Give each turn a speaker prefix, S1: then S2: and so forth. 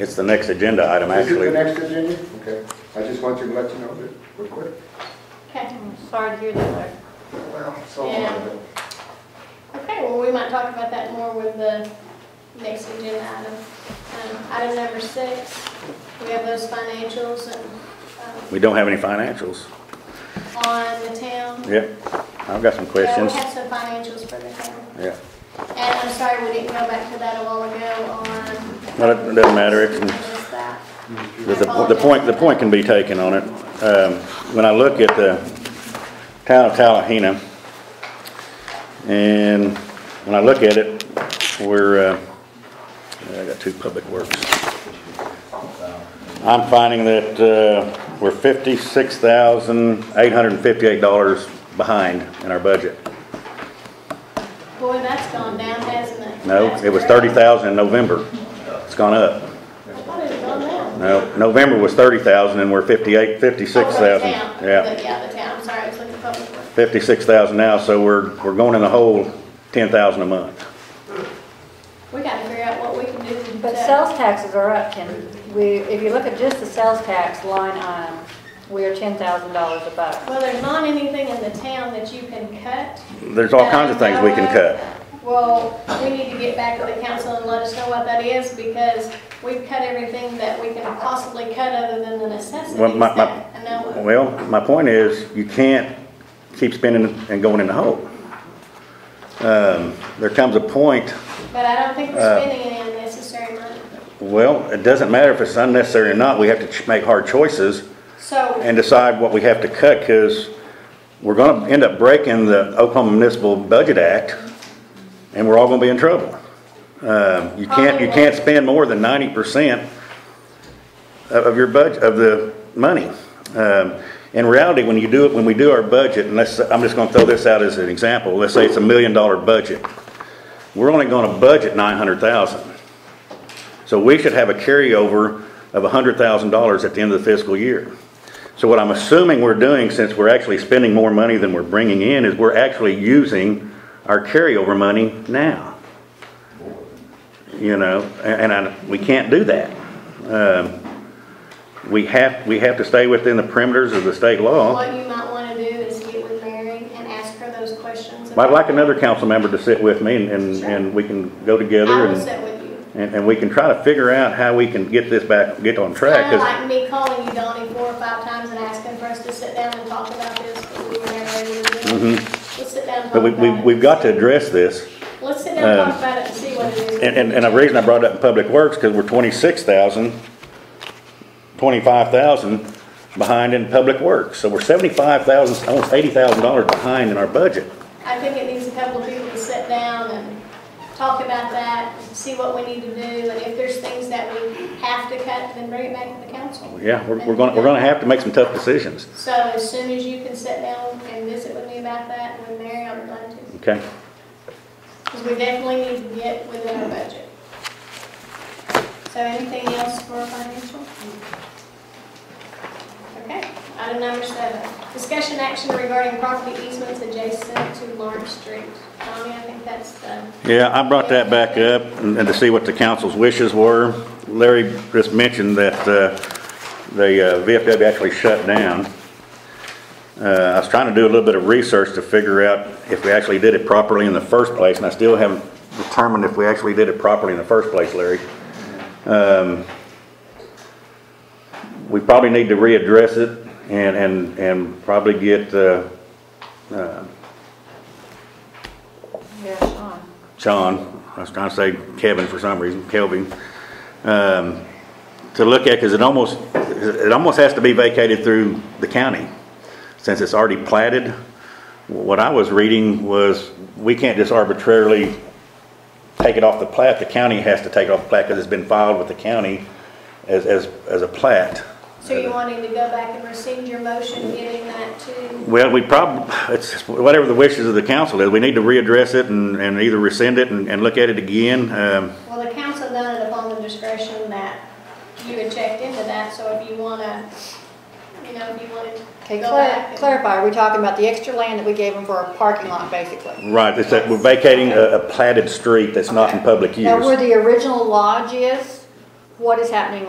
S1: It's the next agenda item,
S2: Is it the
S1: actually.
S2: next agenda? Okay, I just wanted to let you know that we're quick.
S3: Okay, I'm sorry to hear that.
S2: Well, so
S3: Yeah.
S2: long.
S3: Okay, well, we might talk about that more with the next agenda item. Um, Item number six, we have those financials and, um,
S1: We don't have any financials.
S3: on the town.
S1: Yeah, I've got some
S3: Yeah, we
S1: questions.
S3: have some financials for the town.
S1: Yeah,
S3: And I'm sorry we didn't go back to that a while ago on.
S1: Well, it doesn't matter. It can-
S3: I missed that.
S1: the, the point, the point can be taken on it. Um, when I look at the town of Tallahena, and when I look at it, we're, uh, I got two public works. I'm finding that, uh, we're fifty-six thousand, eight hundred and fifty-eight dollars behind in our budget.
S3: Boy, that's gone down, hasn't it?
S1: No,
S3: That's
S1: it was
S3: great.
S1: thirty thousand in November. It's gone up.
S3: I thought it had gone down.
S1: No, November was thirty thousand and we're fifty-eight, fifty-six thousand.
S3: Oh, for the town. The- Yeah, the town, sorry, I was looking for public works.
S1: Fifty-six thousand now, so we're, we're going in the hole ten thousand a month.
S3: We gotta figure out what we can do.
S4: But
S3: to-
S4: sales taxes are up, Ken. We, if you look at just the sales tax line item, we are ten thousand dollars above.
S3: Well, there's not anything in the town that you can cut.
S1: There's all kinds of things we can cut.
S3: Well, we need to get back to the council and let us know what that is, because we've cut everything that we can possibly cut other than the necessities
S1: Well, my- my-
S3: that, I know. of.
S1: Well, my point is, you can't keep spending and going in the hole. Um, there comes a point,
S3: But I don't think
S1: uh,
S3: we're spending any unnecessary money.
S1: well, it doesn't matter if it's unnecessary or not, we have to ch- make hard choices
S3: So,
S1: and decide what we have to cut, because we're gonna end up breaking the Oklahoma Municipal Budget Act, and we're all gonna be in trouble. Um, you can't, you can't spend more than ninety percent of, of your budget, of the money. Um, in reality, when you do it, when we do our budget, and let's, I'm just gonna throw this out as an example, let's say it's a million dollar budget. We're only gonna budget nine hundred thousand. So we should have a carryover of hundred thousand dollars at the end of the fiscal year. So what I'm assuming we're doing, since we're actually spending more money than we're bringing in, is we're actually using our carryover money now. You know, a- and I, we can't do that. Um, We have, we have to stay within the perimeters of the state law.
S3: what you might wanna do is get with Mary and ask her those questions.
S1: I'd
S3: about-
S1: like another council member to sit with me and, and, and we can go
S3: I
S1: together
S3: will
S1: and,
S3: sit with you.
S1: and, and we can try to figure out how we can get this back, get on track.
S3: Kind of
S1: 'cause-
S3: like me calling you, Donnie, four or five times and asking for us to sit down and talk about this, but we were never able to do it. Let's sit down and
S1: Mm-hmm. But
S3: talk
S1: we, we,
S3: about it.
S1: we've got to address this.
S3: Let's sit down and talk about it and see what it is.
S1: And, and, and the reason I brought it up in Public Works, because we're twenty-six thousand, twenty-five thousand behind in Public Works. So we're seventy-five thousand, almost eighty thousand dollars behind in our budget.
S3: I think it needs a couple of people to sit down and talk about that, see what we need to do, and if there's things that we have to cut, then bring it back to the council.
S1: Yeah, we're, we're gonna, we're gonna have to make some tough decisions,
S3: So as soon as you can sit down and visit with me about that, and with Mary, I would love to,
S1: okay?
S3: because we definitely need to get within our budget. So anything else for financial? Okay, item number seven, discussion action regarding property easements adjacent to Lawrence Street. Tommy, I think that's the
S1: Yeah, I brought that back up and and to see what the council's wishes were. Larry just mentioned that uh, the uh, VFW actually shut down. Uh, I was trying to do a little bit of research to figure out if we actually did it properly in the first place, and I still haven't determined if we actually did it properly in the first place, Larry. Um, We probably need to readdress it and, and, and probably get uh,
S4: Yeah, Sean.
S1: Sean, I was trying to say Kevin for some reason, Kelvin, um, to look at, because it almost, it almost has to be vacated through the county, since it's already platted. What I was reading was, we can't just arbitrarily take it off the plat, the county has to take it off the plat, because it's been filed with the county as, as, as a plat.
S3: So you wanting to go back and rescind your motion, giving that to,
S1: Well, we prob, it's whatever the wishes of the council is, we need to readdress it and, and either rescind it and, and look at it again, um,
S3: well, the council done it upon the discretion that you had checked into that, so if you wanna, you know, if you wanna
S4: Okay,
S3: go back.
S4: clar-
S3: and-
S4: clarify, are we talking about the extra land that we gave them for a parking lot, basically?
S1: Right, it's that we're vacating a, a platted street that's not in public
S4: Now, where
S1: use.
S4: the original lodge is, what is happening with